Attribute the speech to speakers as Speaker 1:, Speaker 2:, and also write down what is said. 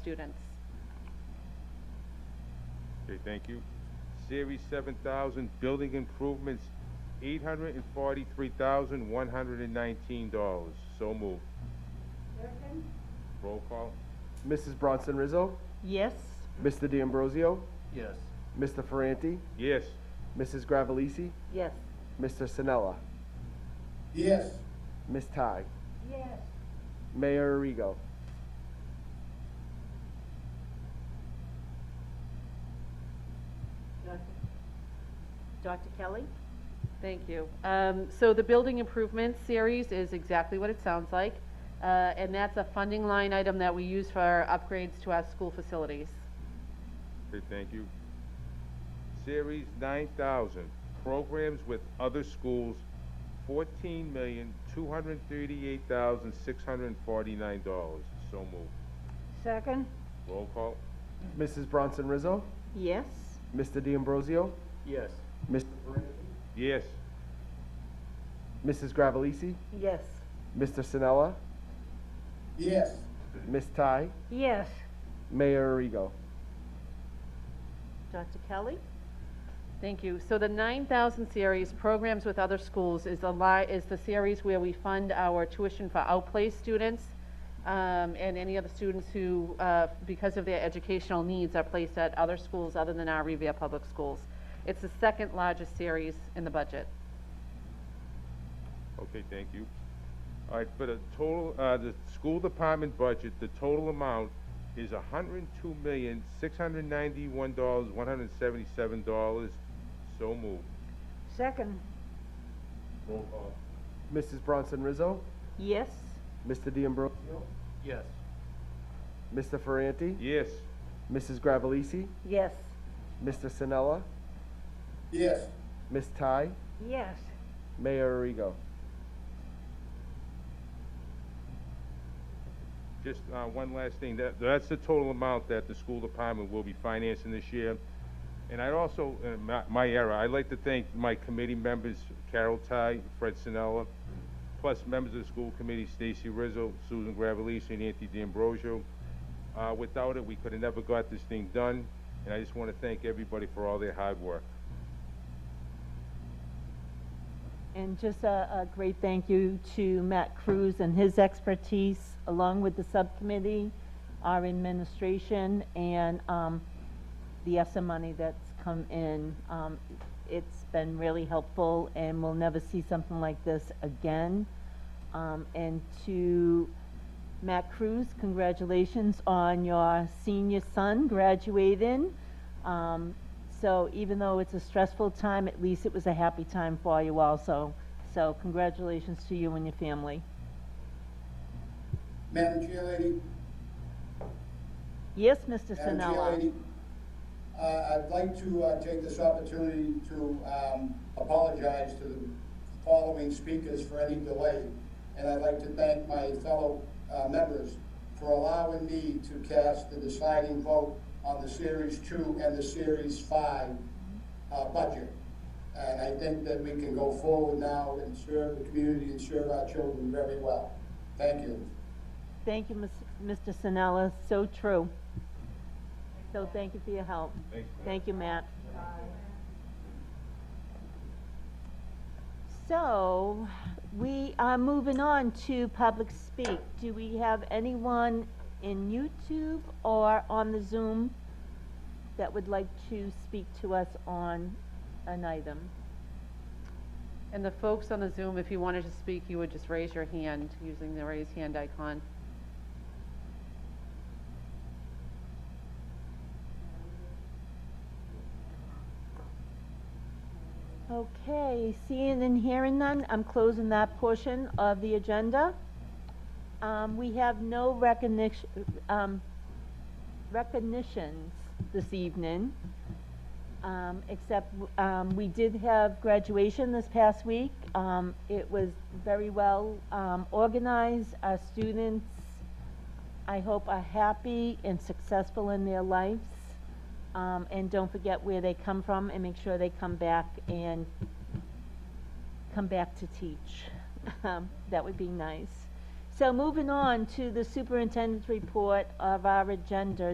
Speaker 1: students.
Speaker 2: Okay, thank you. Series seven thousand, building improvements, eight hundred and forty-three thousand, one hundred and nineteen dollars. So moved. Roll call.
Speaker 3: Mrs. Bronson Rizzo,
Speaker 1: Yes.
Speaker 3: Mr. D'Ambrosio,
Speaker 4: Yes.
Speaker 3: Mr. Ferranti,
Speaker 2: Yes.
Speaker 3: Mrs. Gravellisi,
Speaker 1: Yes.
Speaker 3: Mr. Sinella,
Speaker 4: Yes.
Speaker 3: Ms. Ty,
Speaker 1: Yes.
Speaker 3: Mayor Arrigo.
Speaker 1: Dr. Kelly? Thank you. Um, So the building improvement series is exactly what it sounds like, uh, and that's a funding line item that we use for upgrades to our school facilities.
Speaker 2: Okay, thank you. Series nine thousand, programs with other schools, fourteen million, two hundred and thirty-eight thousand, six hundred and forty-nine dollars. So moved.
Speaker 1: Second?
Speaker 2: Roll call.
Speaker 3: Mrs. Bronson Rizzo,
Speaker 1: Yes.
Speaker 3: Mr. D'Ambrosio,
Speaker 4: Yes.
Speaker 3: Mr. Ferranti,
Speaker 2: Yes.
Speaker 3: Mrs. Gravellisi,
Speaker 1: Yes.
Speaker 3: Mr. Sinella,
Speaker 4: Yes.
Speaker 3: Ms. Ty,
Speaker 1: Yes.
Speaker 3: Mayor Arrigo.
Speaker 1: Dr. Kelly? Thank you. So the 9,000 series, Programs with Other Schools, is the li, is the series where we fund our tuition for outplay students, um, and any other students who, uh, because of their educational needs, are placed at other schools other than our Revere Public Schools. It's the second largest series in the budget.
Speaker 2: Okay, thank you. All right, for the total, uh, the school department budget, the total amount is hundred and two million, six hundred and ninety-one dollars, one hundred and seventy-seven dollars. So moved.
Speaker 5: Second,
Speaker 2: Roll call.
Speaker 3: Mrs. Bronson Rizzo,
Speaker 1: Yes?
Speaker 3: Mr. D'Ambrosio,
Speaker 4: Yes.
Speaker 3: Mr. Ferranti,
Speaker 2: Yes.
Speaker 3: Mrs. Gravellisi,
Speaker 1: Yes.
Speaker 3: Mr. Sinella,
Speaker 4: Yes.
Speaker 3: Ms. Ty,
Speaker 5: yes,
Speaker 3: Mayor Arrigo.
Speaker 2: Just, uh, one last thing, that, that's the total amount that the school department will be financing this year. And I'd also, uh, my, my era, I'd like to thank my committee members, Carol Ty, Fred Sinella, plus members of the school committee, Stacy Rizzo, Susan Gravellisi, and Anthony D'Ambrosio. Uh, without it, we could have never got this thing done, and I just want to thank everybody for all their hard work.
Speaker 6: And just a, a great thank you to Matt Cruz and his expertise, along with the subcommittee, our administration, and, um, the ESSA money that's come in. Um, it's been really helpful, and we'll never see something like this again. Um, and to Matt Cruz, congratulations on your senior son graduating. Um, so even though it's a stressful time, at least it was a happy time for you also. So congratulations to you and your family.
Speaker 7: Madam Chairlady?
Speaker 6: Yes, Mr.
Speaker 7: Madam
Speaker 6: Sinella?
Speaker 7: Chairlady, uh, I'd like to uh, take this opportunity to um, apologize to the following speakers for any delay, and I'd like to thank my fellow uh, members for allowing me to cast the deciding vote on the Series 2 and the Series 5 uh, budget. And I think that we can go forward now and serve the community and serve our children very well. Thank you.
Speaker 6: Thank you, Ms- Mr. Sinella, so true. So thank you for your help.
Speaker 2: Thanks, Matt.
Speaker 6: Thank you, Matt. So, we are moving on to public speak. Do we have anyone in YouTube or on the Zoom that would like to speak to us on an item?
Speaker 1: And the folks on the Zoom, if you wanted to speak, you would just raise your hand using the raise hand icon.
Speaker 6: Okay, seeing and hearing none, I'm closing that portion of the agenda. Um, we have no recognition, um, recognitions this evening. Um, except, um, we did have graduation this past week. Um, it was very well, um, organized. Our students, I hope, are happy and successful in their lives. Um, and don't forget where they come from and make sure they come back and come back to teach. Um, that would be nice. So moving on to the superintendent's report of our agenda,